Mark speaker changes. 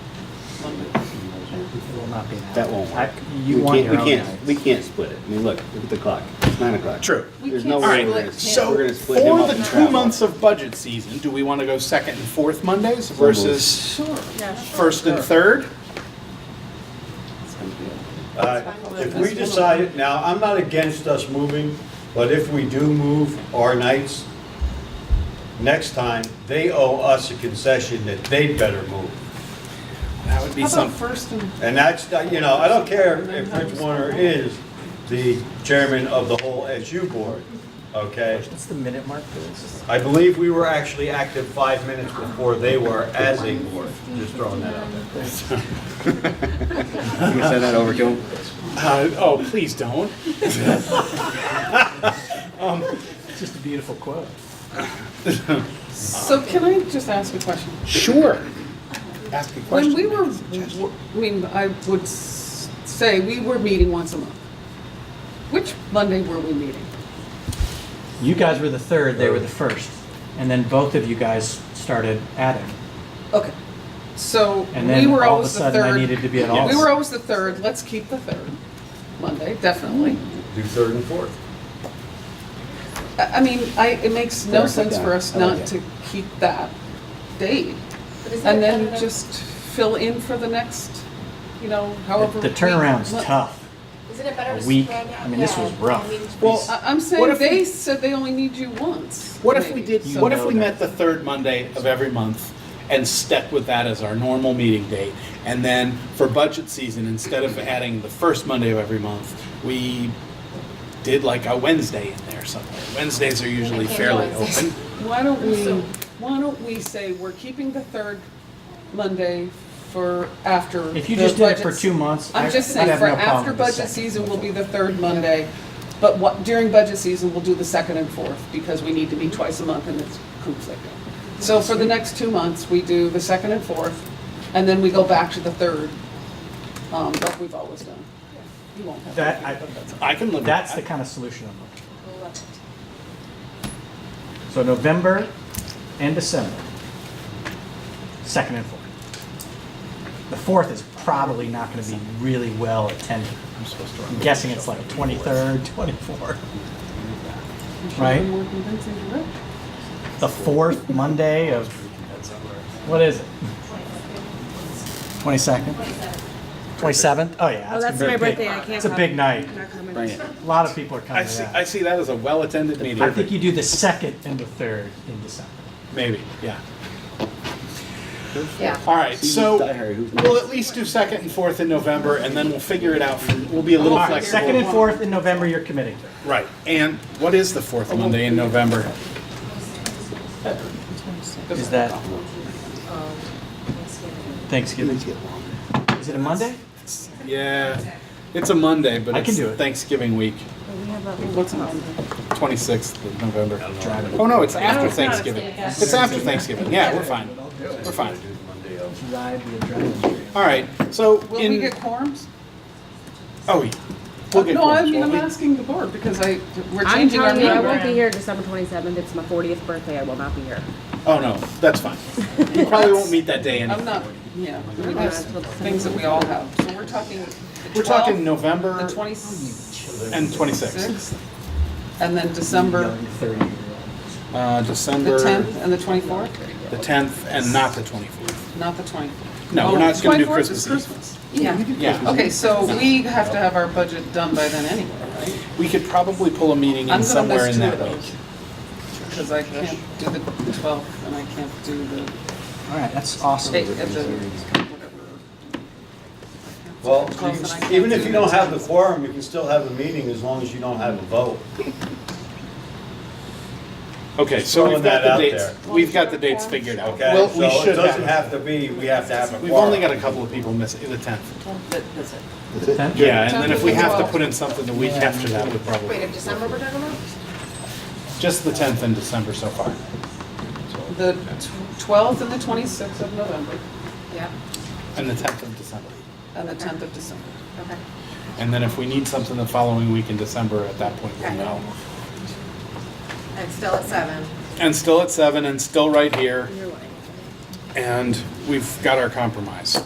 Speaker 1: It will not be an hour.
Speaker 2: That won't work.
Speaker 1: I- You
Speaker 2: We
Speaker 1: want
Speaker 2: can't-
Speaker 1: your own
Speaker 2: We can't, we
Speaker 1: nights.
Speaker 2: can't split it. I mean, look, look at the clock. It's nine o'clock.
Speaker 3: True.
Speaker 4: We
Speaker 2: There's
Speaker 4: can't
Speaker 2: no way
Speaker 4: split
Speaker 2: we're gonna,
Speaker 4: him.
Speaker 2: we're
Speaker 3: So
Speaker 2: gonna split him
Speaker 3: for
Speaker 2: up
Speaker 3: the
Speaker 2: and
Speaker 3: two
Speaker 2: travel.
Speaker 3: months of budget season, do we want to go second and fourth Mondays versus
Speaker 4: Yeah, sure.
Speaker 3: first and third?
Speaker 5: Uh, If we decide it, now, I'm not against us moving, but if we do move our nights, next time, they owe us a concession that they'd better move.
Speaker 3: That would be
Speaker 6: How about
Speaker 3: some,
Speaker 6: first and,
Speaker 5: And that's, you know, I don't care if Rich Warner is the chairman of the whole SU board, okay?
Speaker 1: What's the minute mark for this?
Speaker 5: I believe we were actually active five minutes before they were as a board, just throwing that out there.
Speaker 2: You can send that over to him.
Speaker 3: uh, oh, please don't.
Speaker 1: It's just a beautiful quote.
Speaker 6: so can I just ask a question?
Speaker 3: Sure. Ask a question.
Speaker 6: When we were, I mean, I would s- say we were meeting once a month. Which Monday were we meeting?
Speaker 1: You guys were the third, they were the first. And then both of you guys started adding.
Speaker 6: Okay, so
Speaker 1: And
Speaker 6: we
Speaker 1: then all
Speaker 6: were
Speaker 1: of a
Speaker 6: always the
Speaker 1: sudden, I
Speaker 6: third.
Speaker 1: needed to be at all.
Speaker 6: We were always the third, let's keep the third Monday, definitely.
Speaker 5: Do third and fourth.
Speaker 6: I I mean, I, it makes no
Speaker 2: Third,
Speaker 6: sense for
Speaker 2: yeah,
Speaker 6: us
Speaker 2: I like
Speaker 6: not
Speaker 2: it.
Speaker 6: to keep that date.
Speaker 4: But is that
Speaker 6: And
Speaker 4: not
Speaker 6: then
Speaker 4: enough?
Speaker 6: just fill in for the next, you know, however.
Speaker 1: The
Speaker 6: we-
Speaker 1: turnaround's
Speaker 6: Well,
Speaker 1: tough.
Speaker 4: Isn't it better
Speaker 1: a
Speaker 4: to
Speaker 1: week.
Speaker 4: spread out?
Speaker 1: I mean, this
Speaker 4: Yeah,
Speaker 1: was rough.
Speaker 4: I mean,
Speaker 3: Well,
Speaker 6: I- I'm
Speaker 3: What
Speaker 6: saying
Speaker 3: if we-
Speaker 6: they said they only need you once.
Speaker 3: What if we
Speaker 6: maybe.
Speaker 3: did,
Speaker 1: You
Speaker 3: what if
Speaker 1: know
Speaker 3: we
Speaker 1: that.
Speaker 3: met the third Monday of every month and stuck with that as our normal meeting date? And then for budget season, instead of adding the first Monday of every month, we did like a Wednesday in there somewhere. Wednesdays are usually
Speaker 4: I can't
Speaker 3: fairly
Speaker 4: do
Speaker 3: open.
Speaker 4: Wednesdays.
Speaker 6: Why don't we,
Speaker 4: So-
Speaker 6: why don't we say we're keeping the third Monday for after.
Speaker 1: If you
Speaker 6: the
Speaker 1: just did it for
Speaker 6: budget-
Speaker 1: two months, I-
Speaker 6: I'm just
Speaker 1: I'd
Speaker 6: saying,
Speaker 1: have
Speaker 6: for
Speaker 1: no problem
Speaker 6: after
Speaker 1: with the
Speaker 6: budget
Speaker 1: second.
Speaker 6: season will be the third Monday, but what, during budget season, we'll do the second and fourth, because we need to be twice a month and it's conflicting. So for the next two months, we do the second and fourth, and then we go back to the third, um, like we've always done. You won't have. to
Speaker 1: That,
Speaker 6: do
Speaker 1: I,
Speaker 6: but that's-
Speaker 3: I can live with that.
Speaker 1: that's the kind of solution I'm looking for. So November and December, second and fourth. The fourth is probably not gonna be really well attended.
Speaker 3: I'm supposed to
Speaker 1: I'm
Speaker 3: run.
Speaker 1: guessing it's like twenty-third, twenty-fourth. Right?
Speaker 6: More convincing to Rick.
Speaker 1: The fourth Monday of, what is it? Twenty-second? Twenty-seventh? Oh, yeah.
Speaker 7: Oh, that's
Speaker 1: gonna
Speaker 7: my
Speaker 1: be big.
Speaker 7: birthday. I can't
Speaker 1: It's a
Speaker 7: come.
Speaker 1: big night.
Speaker 7: I'm not coming.
Speaker 2: Bring it.
Speaker 1: A lot of people are
Speaker 3: I
Speaker 1: coming to
Speaker 3: see,
Speaker 1: that.
Speaker 3: I see that as a well-attended meeting.
Speaker 1: Oh, I think you do the second and the third in December.
Speaker 3: Maybe, yeah.
Speaker 4: Yeah.
Speaker 3: All right,
Speaker 2: See,
Speaker 3: so
Speaker 2: Die Hard, who's
Speaker 3: we'll at least do second and fourth in November, and then we'll figure it out. from- We'll be a
Speaker 1: All
Speaker 3: little
Speaker 1: right,
Speaker 3: flexible.
Speaker 1: second and fourth in November, you're committing to.
Speaker 3: Right, and what is the fourth Monday in November?
Speaker 1: Is that Thanksgiving? Is it a Monday?
Speaker 3: Yeah, it's a Monday, but
Speaker 1: I
Speaker 3: it's
Speaker 1: can do it.
Speaker 3: Thanksgiving week,
Speaker 6: What's on?
Speaker 3: 26th of November.
Speaker 1: Driving.
Speaker 3: Oh, no, it's after
Speaker 7: it's not.
Speaker 3: Thanksgiving.
Speaker 7: Yeah.
Speaker 3: It's after Thanksgiving, yeah, we're fine. We're fine. All right, so
Speaker 6: Will we
Speaker 3: in,
Speaker 6: get quorums?
Speaker 3: oh, we- we'll get
Speaker 6: Uh, No, I
Speaker 3: quorums,
Speaker 6: mean,
Speaker 3: won't
Speaker 6: I'm
Speaker 3: we?
Speaker 6: asking the board because I, we're
Speaker 7: I'm
Speaker 6: changing our
Speaker 7: telling you, I won't be
Speaker 6: program.
Speaker 7: here December 27th. It's my 40th birthday. I will not be here.
Speaker 3: Oh, no, that's fine. We probably won't meet that day
Speaker 6: I'm
Speaker 3: anyway.
Speaker 6: not, yeah, we have things that we all have. So we're talking the
Speaker 3: We're talking
Speaker 6: 12th, the
Speaker 3: November
Speaker 6: 26th,
Speaker 3: and 26th.
Speaker 6: and then December
Speaker 3: Uh,
Speaker 6: the
Speaker 3: December.
Speaker 6: 10th and the 24th?
Speaker 3: The 10th and not the 24th.
Speaker 6: Not the 24th.
Speaker 3: No,
Speaker 6: Oh,
Speaker 3: we're not gonna do
Speaker 6: 24th is
Speaker 3: Christmas Eve.
Speaker 6: Christmas.
Speaker 4: Yeah.
Speaker 3: Yeah,
Speaker 6: Okay, so we have to have our budget done by then anyway, right?
Speaker 3: we could probably pull a meeting in
Speaker 6: I'm gonna
Speaker 3: somewhere
Speaker 6: miss
Speaker 3: in
Speaker 6: two
Speaker 3: that
Speaker 6: of
Speaker 3: week.
Speaker 6: those. Because I can't do the 12th and I can't do the
Speaker 1: All right, that's awesome.
Speaker 6: eight at the, whatever.
Speaker 5: Well,
Speaker 6: Close, and I can't
Speaker 5: even if
Speaker 6: do
Speaker 5: you don't
Speaker 6: next
Speaker 5: have the quorum, you can still have a meeting as long as you don't have a vote.
Speaker 3: Okay, so
Speaker 5: throwing
Speaker 3: we've got
Speaker 5: that
Speaker 3: the
Speaker 5: out
Speaker 3: dates,
Speaker 5: there.
Speaker 3: we've got the dates figured out.
Speaker 5: Okay,
Speaker 3: Well,
Speaker 5: so
Speaker 3: we
Speaker 5: it
Speaker 3: should
Speaker 5: doesn't
Speaker 3: have.
Speaker 5: have to be, we have to have a quorum.
Speaker 3: We've only got a couple of people missing, the 10th. Yeah, and then if we have to put in something the week after that, we
Speaker 4: Wait,
Speaker 3: probably,
Speaker 4: of December we're talking about?
Speaker 3: just the 10th in December so far.
Speaker 6: The tw- 12th and the 26th of November,
Speaker 4: Yeah,
Speaker 3: And the 10th of December.
Speaker 6: and the 10th of December.
Speaker 4: okay.
Speaker 3: And then if we need something the following week in December, at that point, we'll know.
Speaker 4: And still at seven.
Speaker 3: And still at 7 and still right here,
Speaker 7: You're lying.
Speaker 3: and we've got our compromise.